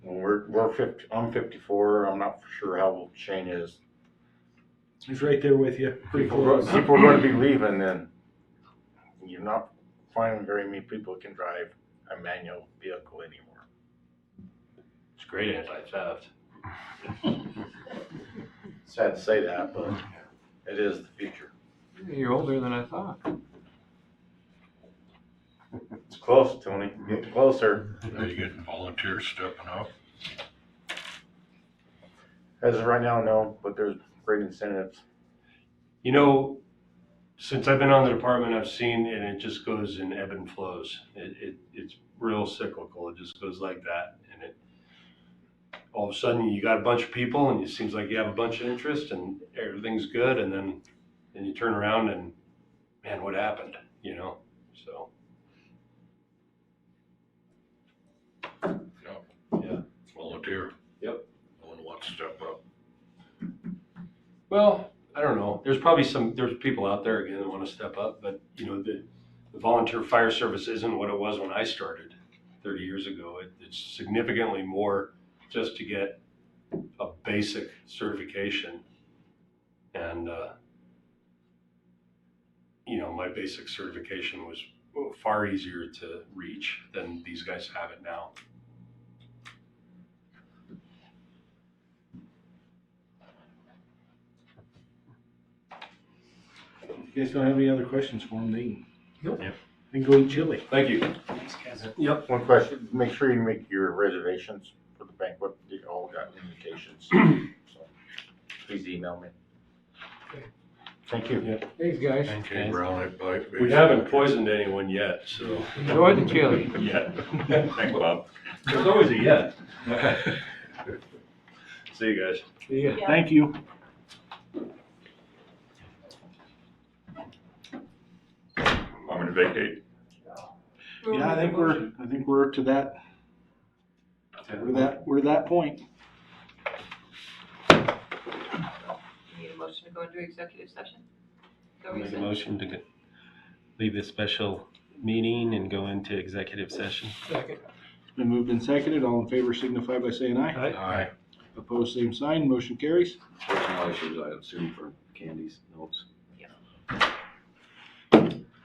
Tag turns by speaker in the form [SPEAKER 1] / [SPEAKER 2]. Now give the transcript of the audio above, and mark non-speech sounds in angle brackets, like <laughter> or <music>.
[SPEAKER 1] we're fifty, I'm fifty-four, I'm not sure how old Shane is.
[SPEAKER 2] He's right there with you, pretty
[SPEAKER 1] People are
[SPEAKER 2] close.
[SPEAKER 1] people are gonna be leaving then. You're not finding very many people that can drive a manual vehicle anymore.
[SPEAKER 3] It's great anti-theft.
[SPEAKER 1] Sad to say that, but it is the future.
[SPEAKER 3] You're older than I thought.
[SPEAKER 1] It's close, Tony, get closer.
[SPEAKER 4] Are you getting volunteers stepping up?
[SPEAKER 1] As of right now, no, but there's great incentives.
[SPEAKER 3] You know, since I've been on the department, I've seen, and it just goes in ebb and flows. It, it, it's real cyclical. It just goes like that. And it, all of a sudden, you got a bunch of people and it seems like you have a bunch of interest and everything's good. And then, then you turn around and, man, what happened? You know, so.
[SPEAKER 4] Volunteer?
[SPEAKER 3] Yep.
[SPEAKER 4] No one wants to step up.
[SPEAKER 3] Well, I don't know. There's probably some, there's people out there again that want to step up, but you know, the, the volunteer fire service isn't what it was when I started thirty years ago. It, it's significantly more just to get a basic certification. And, uh, you know, my basic certification was far easier to reach than these guys have it now.
[SPEAKER 2] You guys don't have any other questions for him, they can.
[SPEAKER 3] Nope.
[SPEAKER 2] They can go eat chili.
[SPEAKER 3] Thank you. Yep.
[SPEAKER 1] One question, make sure you make your reservations for the banquet, they all got invitations. So, Please email me. Thank you.
[SPEAKER 5] Thanks, guys.
[SPEAKER 4] Okay, brown it by.
[SPEAKER 3] We haven't poisoned anyone yet, so.
[SPEAKER 5] Enjoy the chili.
[SPEAKER 3] Yet. Thanks, Bob. There's always a yet. <laughs> See you guys.
[SPEAKER 5] See ya.
[SPEAKER 2] Thank you.
[SPEAKER 4] I'm gonna vacate.
[SPEAKER 2] Yeah, I think we're, I think we're to that, we're that, we're that point.
[SPEAKER 6] Need a motion to go into executive session? No
[SPEAKER 7] Make a
[SPEAKER 6] reason.
[SPEAKER 7] motion to go- leave this special meeting and go into executive session.
[SPEAKER 5] Second.
[SPEAKER 2] Been moved and seconded, all in favor signify by saying aye.
[SPEAKER 4] Aye.
[SPEAKER 2] Opposed, same sign, motion carries.
[SPEAKER 8] Personal issues, I assume, for candies, notes.